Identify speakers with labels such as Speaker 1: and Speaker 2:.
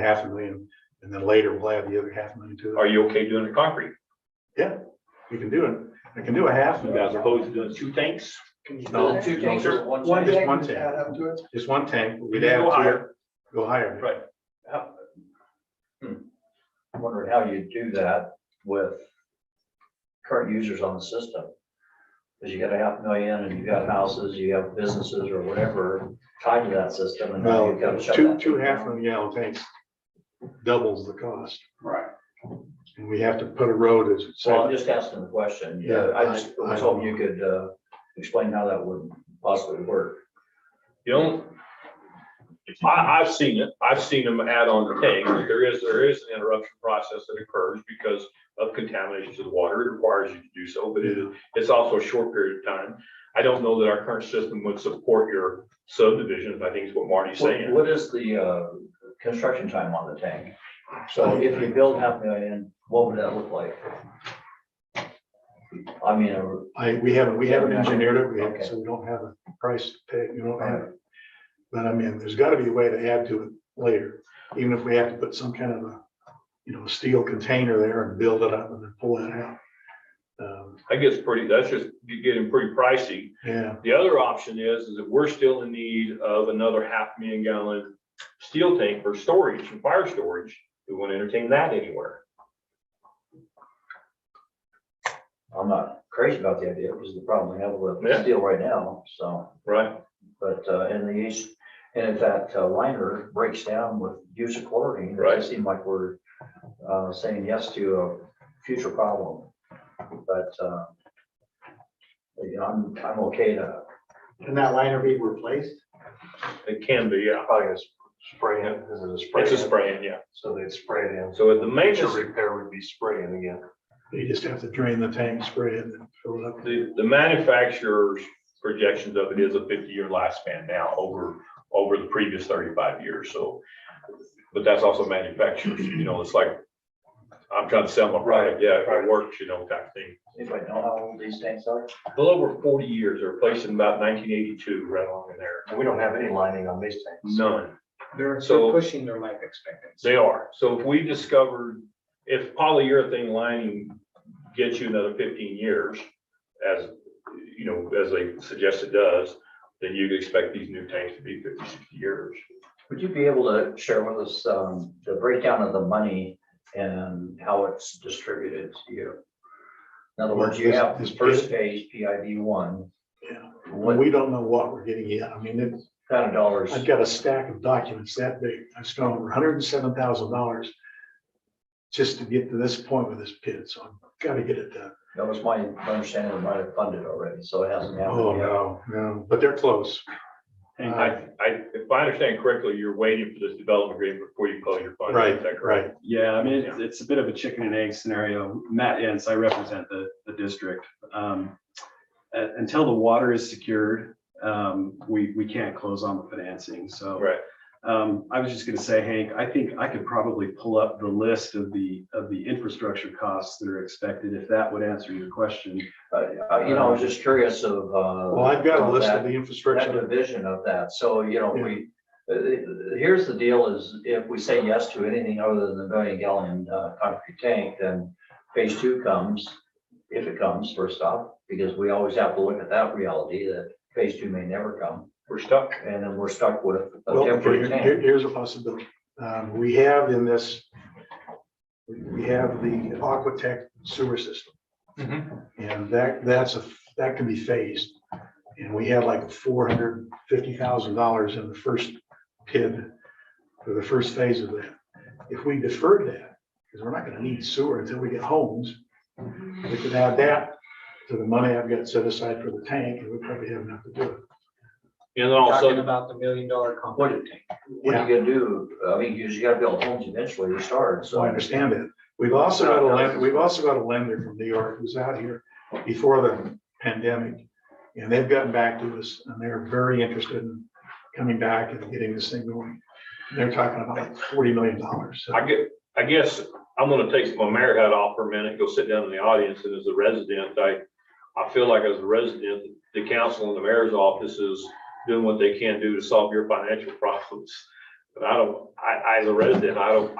Speaker 1: half a million, and then later we'll add the other half a million to
Speaker 2: Are
Speaker 1: it.
Speaker 2: you okay doing the concrete?
Speaker 1: We can do it. I can do a half.
Speaker 2: As opposed to doing two tanks?
Speaker 1: No,
Speaker 3: Two
Speaker 1: no,
Speaker 3: tanks
Speaker 1: sir.
Speaker 3: or
Speaker 1: One
Speaker 3: one
Speaker 1: just
Speaker 3: tank?
Speaker 1: one tank.
Speaker 3: Add up to it?
Speaker 1: Just one tank, we'd
Speaker 2: You
Speaker 1: add
Speaker 2: can go
Speaker 1: to it,
Speaker 2: higher.
Speaker 1: go higher.
Speaker 2: Right.
Speaker 4: hmm, I'm wondering how you do that with current users on the system. Cause you got a half million and you got houses, you have businesses or whatever tied to that system and now you've got
Speaker 1: No,
Speaker 4: to shut
Speaker 1: two,
Speaker 4: that
Speaker 1: two
Speaker 4: thing
Speaker 1: half
Speaker 4: down.
Speaker 1: million gallon tanks doubles the cost.
Speaker 2: Right.
Speaker 1: And we have to put a road as.
Speaker 4: Well, I'm just asking the question.
Speaker 1: Yeah,
Speaker 4: I just
Speaker 1: I- I-
Speaker 4: was hoping you could, uh, explain how that would possibly work.
Speaker 2: You know, I, I've seen it. I've seen them add on the tank. but There is, there is an interruption process that occurs because of contamination to the water. It requires you to do so, but it is, it's also a short period of time. I don't know that our current system would support your subdivisions. I think is what Marty's
Speaker 4: What-
Speaker 2: saying.
Speaker 4: What is the, uh, construction time on the tank? So if you build half million, what would that look like? I mean, uh, a-
Speaker 1: I, we haven't, we haven't engineered it, we haven't,
Speaker 4: Okay.
Speaker 1: so we don't have a price to pay, you don't have. it. But I mean, there's gotta be a way to add to it later, even if we have to put some kind of a, you know, steel container there and build it up and then pull that out. Um,
Speaker 2: I guess pretty, that's just getting pretty pricey.
Speaker 1: Yeah,
Speaker 2: The other option is, is that we're still in need of another half million gallon steel tank for storage and fire storage. We want to entertain that anywhere.
Speaker 4: I'm not crazy about the idea, because the problem we have
Speaker 2: Yeah.
Speaker 4: with steel right now, so,
Speaker 2: Right.
Speaker 4: but, uh, in the east, and if that uh, liner breaks down with use of chlorine, it
Speaker 2: Right.
Speaker 4: does seem like we're, uh, saying yes to a future problem, but, uh, you know, I'm, I'm okay to,
Speaker 5: Can that liner be replaced?
Speaker 2: It can be, yeah.
Speaker 5: Probably a s- spray in, is it a spray?
Speaker 2: It's a
Speaker 5: in?
Speaker 2: spraying, yeah.
Speaker 5: So they'd spray it in.
Speaker 2: So the
Speaker 5: Major
Speaker 2: maintenance,
Speaker 5: repair would be spraying again.
Speaker 1: they just have to drain the tank, spray it and fill it up.
Speaker 2: the, the manufacturer's projections of it is a fifty-year lifespan now over, over the previous thirty-five years, so. But that's also manufacturers, you know, it's like, I'm trying to sell my product, yeah, if it works, you know, type thing.
Speaker 4: if I know how old these tanks are.
Speaker 2: A little over forty years, they're placed in about nineteen eighty-two, right along in there.
Speaker 5: And we don't have any lining on these tanks.
Speaker 2: None.
Speaker 3: They're
Speaker 2: So-
Speaker 3: they're pushing their life expectancy.
Speaker 2: They are. So if we discovered, if polyurethane lining gets you another fifteen years, as, you know, as they suggest it does, then you'd expect these new tanks to be 50, 60 years.
Speaker 4: Would you be able to share with us, um, the breakdown of the money and how it's distributed to you? In other words, you have
Speaker 1: This- this-
Speaker 4: first page, PID one.
Speaker 1: Yeah.
Speaker 4: What
Speaker 1: We don't know what we're getting yet. I mean, it-
Speaker 4: kind of dollars?
Speaker 1: I've got a stack of documents that big. I spent over hundred and seven thousand dollars just to get to this point with this pit, so I've gotta get it done.
Speaker 4: That was my understanding, it might have funded already, so it hasn't
Speaker 1: Oh,
Speaker 4: happened yet.
Speaker 1: no, no, but they're close.
Speaker 2: And I, I, if I understand correctly, you're waiting for this development agreement before you close your fund. Is that
Speaker 1: Right,
Speaker 2: correct?
Speaker 1: right.
Speaker 6: Yeah, I mean, it's, it's a bit of a chicken and egg scenario. Matt Ince, I represent the, the district. Um, uh, Until the water is secured, um, we, we can't close on the financing, so.
Speaker 2: Right.
Speaker 6: Um, I was just gonna say, Hank, I think I could probably pull up the list of the, of the infrastructure costs that are expected, if that would answer your question.
Speaker 4: Uh, uh, You know, I was just curious of, uh.
Speaker 1: Well, I've got a
Speaker 4: of
Speaker 1: list
Speaker 4: that-
Speaker 1: of the
Speaker 4: That
Speaker 1: infrastructure.
Speaker 4: division of that, so, you know, we, uh, uh, here's the deal is if we say yes to anything other than the million gallon uh, concrete tank, then phase two comes, if it comes, first off, because we always have to look at that reality that phase two may never come,
Speaker 2: We're stuck.
Speaker 4: and then we're stuck with a
Speaker 1: Well, okay,
Speaker 4: temporary
Speaker 1: here- here-
Speaker 4: tank.
Speaker 1: here's a possibility. Um, we have in this, we have the Aquatech sewer system. And that, that's a, that can be phased. And we had like four hundred fifty thousand dollars in the first PID for the first phase of that. If we deferred that, because we're not gonna need sewer until we get homes, we could add that to the money I've got set aside for the tank, and we probably have enough to do it.
Speaker 2: And then all of a
Speaker 3: Talking
Speaker 2: sudden,
Speaker 3: about the million dollar
Speaker 4: What-
Speaker 3: component tank.
Speaker 4: What are you gonna do? I mean, you just gotta build homes eventually to start,
Speaker 1: So
Speaker 4: so.
Speaker 1: I understand it. We've also got a lender, we've also got a lender from New York who's out here before the pandemic. And they've gotten back to us and they're very interested in coming back and getting this thing going. They're talking about like forty million dollars.
Speaker 2: I get, I guess I'm gonna take my mayor hat off for a minute, go sit down in the audience, and as a resident, I, I feel like as a resident, the council and the mayor's office is doing what they can do to solve your financial problems. But I don't, I, I, as a resident, I don't,